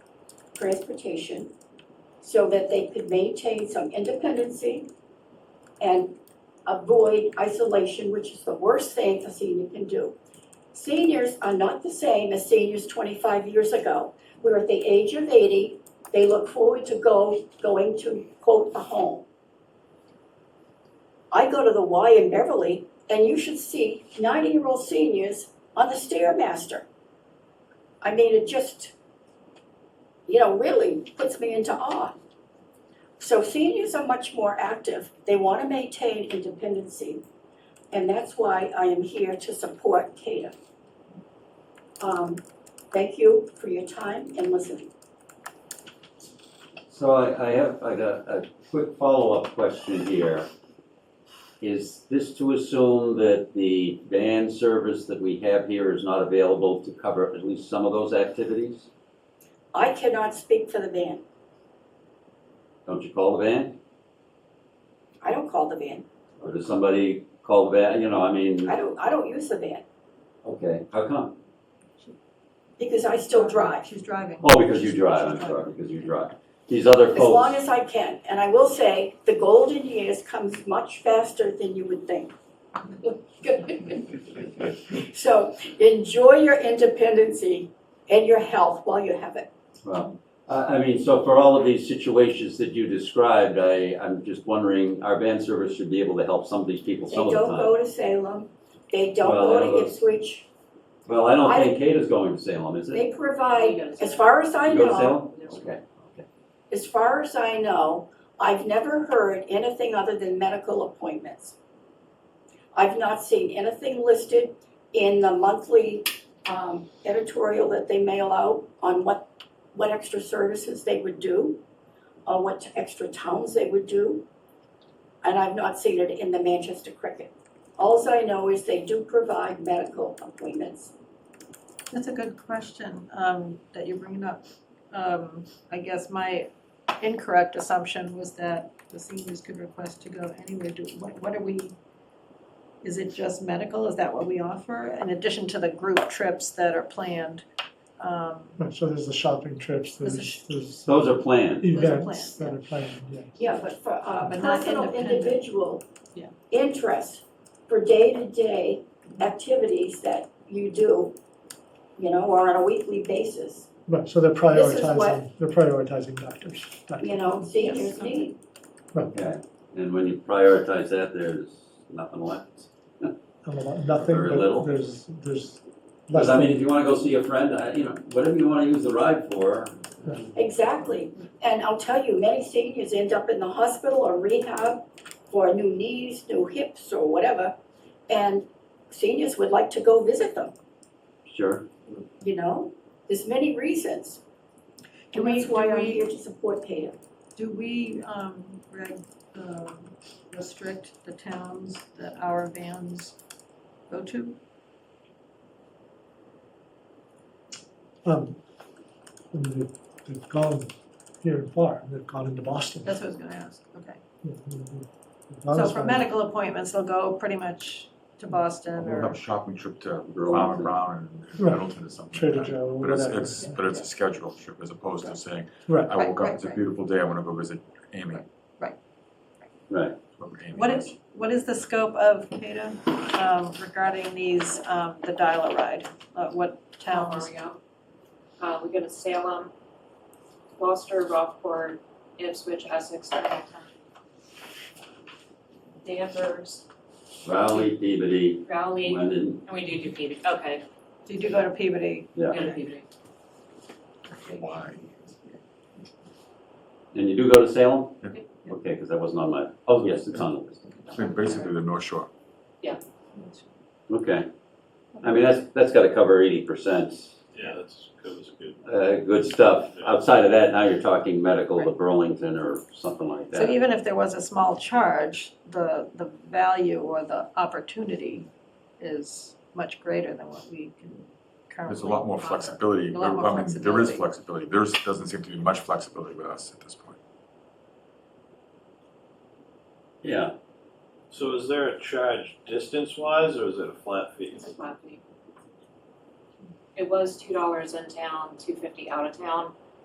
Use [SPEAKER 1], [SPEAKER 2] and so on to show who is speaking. [SPEAKER 1] transportation so that they could maintain some independency and avoid isolation, which is the worst thing a senior can do. Seniors are not the same as seniors twenty-five years ago. We're at the age of eighty, they look forward to go, going to quote a home. I go to the Y in Beverly and you should see ninety-year-old seniors on the Stairmaster. I mean, it just, you know, really puts me into awe. So seniors are much more active, they wanna maintain independency. And that's why I am here to support CADA. Um, thank you for your time and listening.
[SPEAKER 2] So I, I have, I got a quick follow-up question here. Is this to assume that the van service that we have here is not available to cover at least some of those activities?
[SPEAKER 1] I cannot speak for the van,
[SPEAKER 2] Don't you call the van?
[SPEAKER 1] I don't call the van,
[SPEAKER 2] Or does somebody call the van, you know, I mean,
[SPEAKER 1] I don't, I don't use the van,
[SPEAKER 2] okay, how come?
[SPEAKER 1] because I still drive.
[SPEAKER 3] She's driving.
[SPEAKER 2] Oh, because you drive, I'm sorry, because you drive. These other folks.
[SPEAKER 1] As long as I can, and I will say, the golden years comes much faster than you would think. So enjoy your independency and your health while you have it.
[SPEAKER 2] Well, I, I mean, so for all of these situations that you described, I, I'm just wondering, our van service should be able to help some of these people
[SPEAKER 1] They
[SPEAKER 2] some of
[SPEAKER 1] don't
[SPEAKER 2] the time.
[SPEAKER 1] go to Salem, they don't
[SPEAKER 2] Well, I know
[SPEAKER 1] go to
[SPEAKER 2] those-
[SPEAKER 1] Ipswich,
[SPEAKER 2] Well, I don't
[SPEAKER 1] I-
[SPEAKER 2] think Kate is going to Salem, is it?
[SPEAKER 1] they provide,
[SPEAKER 3] go to
[SPEAKER 1] as far as I
[SPEAKER 2] You go to
[SPEAKER 1] know,
[SPEAKER 2] Salem? Okay, okay.
[SPEAKER 1] as far as I know, I've never heard anything other than medical appointments. I've not seen anything listed in the monthly um, editorial that they mail out on what, what extra services they would do, or what extra towns they would do. And I've not seen it in the Manchester Cricket. Alls I know is they do provide medical appointments.
[SPEAKER 3] That's a good question, um, that you're bringing up. Um, I guess my incorrect assumption was that the seniors could request to go anywhere, do, what, what are we? Is it just medical, is that what we offer, in addition to the group trips that are planned? Um,
[SPEAKER 4] Right, so there's the shopping trips,
[SPEAKER 3] There's the
[SPEAKER 4] there's, there's uh,
[SPEAKER 2] Those are planned.
[SPEAKER 3] those are
[SPEAKER 4] events that
[SPEAKER 3] planned,
[SPEAKER 4] are planned, yeah.
[SPEAKER 1] Yeah, but for uh,
[SPEAKER 3] But not
[SPEAKER 1] personal
[SPEAKER 3] independent.
[SPEAKER 1] individual
[SPEAKER 3] Yeah.
[SPEAKER 1] interest for day-to-day activities that you do, you know, or on a weekly basis,
[SPEAKER 4] Right, so they're
[SPEAKER 1] This is what-
[SPEAKER 4] prioritizing, they're prioritizing doctors, doctors.
[SPEAKER 1] you know, seniors
[SPEAKER 3] Yes.
[SPEAKER 1] need.
[SPEAKER 2] Okay. And when you prioritize that, there's nothing left.
[SPEAKER 4] I don't know, Nothing,
[SPEAKER 2] Very little.
[SPEAKER 4] but there's, there's less
[SPEAKER 2] Because I mean,
[SPEAKER 4] than,
[SPEAKER 2] if you wanna go see a friend, I, you know, whatever you wanna use the ride for.
[SPEAKER 1] Exactly, and I'll tell you, many seniors end up in the hospital or rehab for new knees, new hips, or whatever. And seniors would like to go visit them,
[SPEAKER 2] Sure.
[SPEAKER 1] you know, there's many reasons.
[SPEAKER 3] Do
[SPEAKER 1] And
[SPEAKER 3] we-
[SPEAKER 1] that's why
[SPEAKER 3] do
[SPEAKER 1] I'm
[SPEAKER 3] we-
[SPEAKER 1] here to support Peter.
[SPEAKER 3] Do we, um, reg, um, restrict the towns that our vans go to?
[SPEAKER 4] um, and they've, they've gone here and far, they've gone into Boston.
[SPEAKER 3] That's what I was gonna ask, okay.
[SPEAKER 4] Yeah, they've- they've
[SPEAKER 5] Oh,
[SPEAKER 4] gone
[SPEAKER 3] So
[SPEAKER 4] as
[SPEAKER 3] for
[SPEAKER 4] far-
[SPEAKER 3] medical appointments, they'll go pretty much to Boston
[SPEAKER 5] We'll have
[SPEAKER 3] or,
[SPEAKER 5] a shopping trip to Farmer
[SPEAKER 2] Burlington.
[SPEAKER 5] Brown and
[SPEAKER 4] Right.
[SPEAKER 5] Middleton or something
[SPEAKER 4] Trader
[SPEAKER 5] like that.
[SPEAKER 4] Joe, or
[SPEAKER 5] But it's,
[SPEAKER 4] whatever.
[SPEAKER 5] it's, but it's a scheduled trip as opposed to saying,
[SPEAKER 4] Right.
[SPEAKER 5] I
[SPEAKER 3] Right,
[SPEAKER 5] woke up,
[SPEAKER 3] right,
[SPEAKER 5] it's a
[SPEAKER 3] right.
[SPEAKER 5] beautiful day, I wanna go visit Amy.
[SPEAKER 3] Right.
[SPEAKER 2] Right.
[SPEAKER 5] Whoever Amy
[SPEAKER 3] what is, what is the scope of CADA um, regarding these, um, the dial-a-ride? Uh, What
[SPEAKER 6] town where
[SPEAKER 3] towns?
[SPEAKER 6] we go. Oh, Uh, we go to Salem, Gloucester, Rockport, Ipswich, Essex, Hamilton. Danvers,
[SPEAKER 2] Rowley, Peabody,
[SPEAKER 6] Rowley, and
[SPEAKER 2] London,
[SPEAKER 6] we do do Peabody, okay,
[SPEAKER 3] Do you do go to Peabody?
[SPEAKER 6] we
[SPEAKER 2] yeah.
[SPEAKER 6] go to Peabody.
[SPEAKER 5] Why?
[SPEAKER 2] And you do go to Salem?
[SPEAKER 5] Yeah.
[SPEAKER 2] Okay, because that wasn't on my, oh, yes, it's on the list.
[SPEAKER 5] So basically the North Shore.
[SPEAKER 2] Okay. I mean, that's, that's gotta cover eighty percent.
[SPEAKER 7] Yeah, that's, that was good.
[SPEAKER 2] Uh, good stuff. Outside of that, now you're talking medical to Burlington or something like that.
[SPEAKER 3] So even if there was a small charge, the, the value or the opportunity is much greater than what we can currently
[SPEAKER 5] There's a lot more
[SPEAKER 3] offer.
[SPEAKER 5] flexibility.
[SPEAKER 3] A lot more
[SPEAKER 5] I mean, There is
[SPEAKER 3] flexibility.
[SPEAKER 5] flexibility. There's, doesn't seem to be much flexibility with us at this point.
[SPEAKER 2] Yeah,
[SPEAKER 7] So is there a charge distance wise or is it a flat fee?
[SPEAKER 6] It's a flat fee. It was two dollars in town, two fifty out of town,